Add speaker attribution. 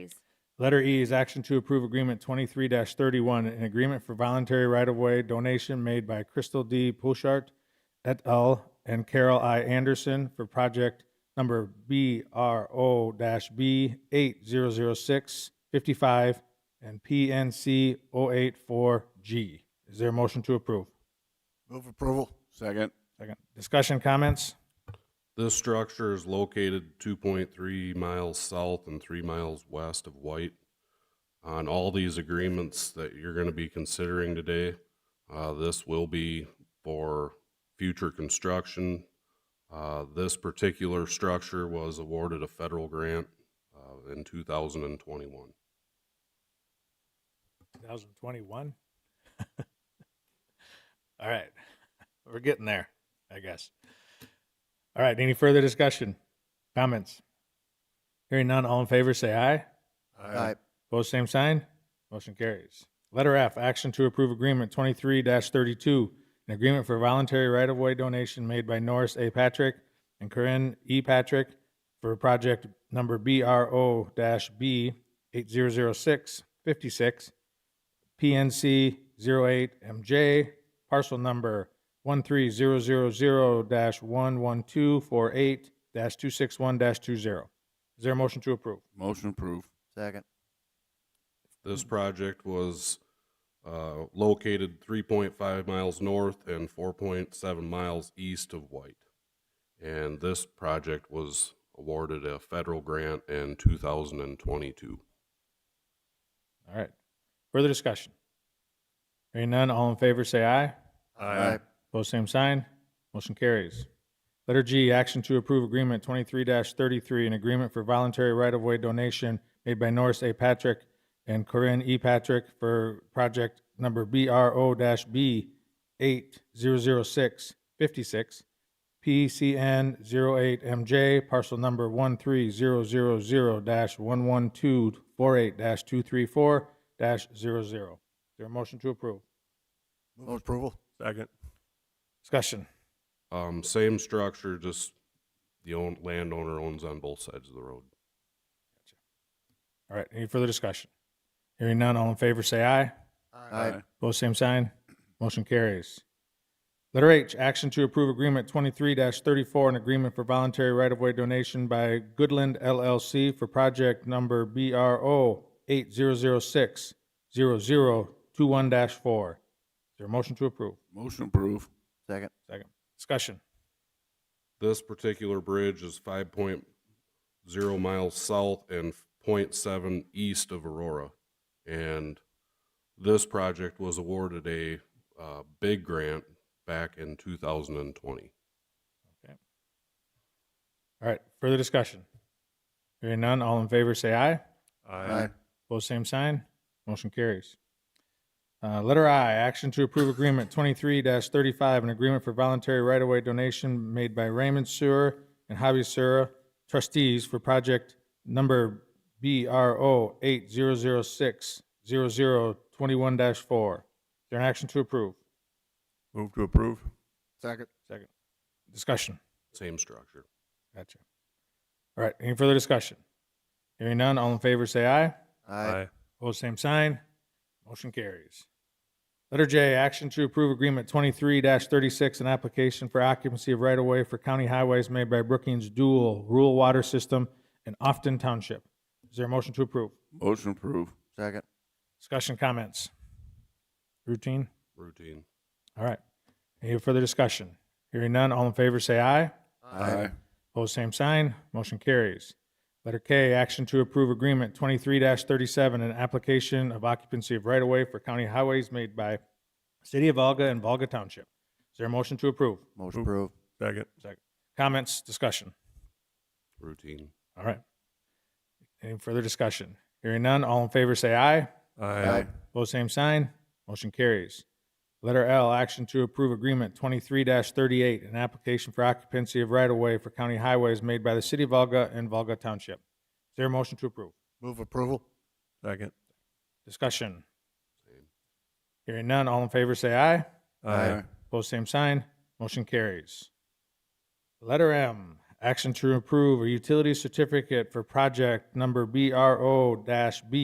Speaker 1: Letter E is action to approve agreement twenty-three thirty-one, an agreement for voluntary right-of-way donation made by Crystal D. Pouchard et al. and Carol I. Anderson for project number B R O B eight zero zero six fifty-five and PNC 84 oh G. Is there a motion to approve?
Speaker 2: Move approval. Second.
Speaker 1: Second. Discussion, comments?
Speaker 3: This structure is located 2.3 miles south and 3 miles west of White. On all these agreements that you're going to be considering today, uh, this will be for future construction. Uh, This particular structure was awarded a federal grant uh, in 2021.
Speaker 1: 2021. All right. We're getting there, I guess. All right. Any further discussion? Comments? Hearing none, all in favor say aye.
Speaker 2: Aye.
Speaker 1: Opposed, same sign. Motion carries. Letter F, action to approve agreement 23-32, an agreement for voluntary right-of-way donation made by Norris A. Patrick and Corinne E. Patrick for project number BRO-B 800656 PNC 08MJ, parcel number 13000-11248-261-20. Is there a motion to approve?
Speaker 2: Motion approved.
Speaker 4: Second.
Speaker 3: This project was uh, located 3.5 miles north and 4.7 miles east of White. And this project was awarded a federal grant in 2022.
Speaker 1: All right. Further discussion? Hearing none, all in favor say aye.
Speaker 2: Aye.
Speaker 1: Opposed, same sign. Motion carries. Letter G, action to approve agreement twenty-three thirty-three, an agreement for voluntary right-of-way donation made by Norris A. Patrick and Corinne E. Patrick for project number BRO B eight zero zero six fifty-six, PCN 08MJ, parcel number 13000-11248-234-00. Is there a motion to approve?
Speaker 2: Move approval.
Speaker 5: Second.
Speaker 1: Discussion.
Speaker 3: Um, Same structure, just the own- landowner owns on both sides of the road.
Speaker 1: All right, any further discussion? Hearing none, all in favor say aye.
Speaker 4: Aye.
Speaker 1: Both same sign. Motion carries. Letter H, action to approve agreement twenty-three thirty-four, an agreement for voluntary right-of-way donation by Goodland LLC for project number BRO eight zero zero six zero zero two one four. Is there a motion to approve?
Speaker 2: Motion approved.
Speaker 4: Second.
Speaker 1: Second. Discussion.
Speaker 3: This particular bridge is 5.0 miles south and 0.7 east of Aurora. And this project was awarded a uh, big grant back in 2020.
Speaker 1: All right, further discussion. Hearing none, all in favor say aye.
Speaker 5: Aye.
Speaker 1: Both same sign. Motion carries. Uh, letter I, action to approve agreement twenty-three thirty-five, an agreement for voluntary right-of-way donation made by Raymond Sewer and Hobby Sewer trustees for project number BRO eight zero zero six zero zero twenty-one four. Is there an action to approve?
Speaker 5: Move to approve.
Speaker 2: Second.
Speaker 1: Second. Discussion.
Speaker 3: Same structure.
Speaker 1: Gotcha. All right, any further discussion? Hearing none, all in favor say aye.
Speaker 4: Aye.
Speaker 1: Opposed, same sign. Motion carries. Letter J, action to approve agreement twenty-three thirty-six, an application for occupancy of right-of-way for county highways made by Brookings Dual Rural Water System in Ofton Township. Is there a motion to approve?
Speaker 2: Motion approved.
Speaker 4: Second.
Speaker 1: Discussion, comments? Routine?
Speaker 3: Routine.
Speaker 1: All right. Any further discussion? Hearing none, all in favor say aye.
Speaker 2: Aye.
Speaker 1: Opposed, same sign. Motion carries. Letter K, action to approve agreement twenty-three thirty-seven, an application of occupancy of right-of-way for county highways made by City of Volga and Volga Township. Is there a motion to approve?
Speaker 4: Motion approved.
Speaker 5: Second.
Speaker 1: Comments, discussion?
Speaker 3: Routine.
Speaker 1: All right. Any further discussion? Hearing none, all in favor say aye.
Speaker 5: Aye.
Speaker 1: Opposed, same sign. Motion carries. Letter L, action to approve agreement twenty-three thirty-eight, an application for occupancy of right-of-way for county highways made by the City of Volga and Volga Township. Is there a motion to approve?
Speaker 2: Move approval.
Speaker 5: Second.
Speaker 1: Discussion. Hearing none, all in favor say aye.
Speaker 5: Aye.
Speaker 1: Opposed, same sign. Motion carries. Letter M, action to approve a utility certificate for project number BRO B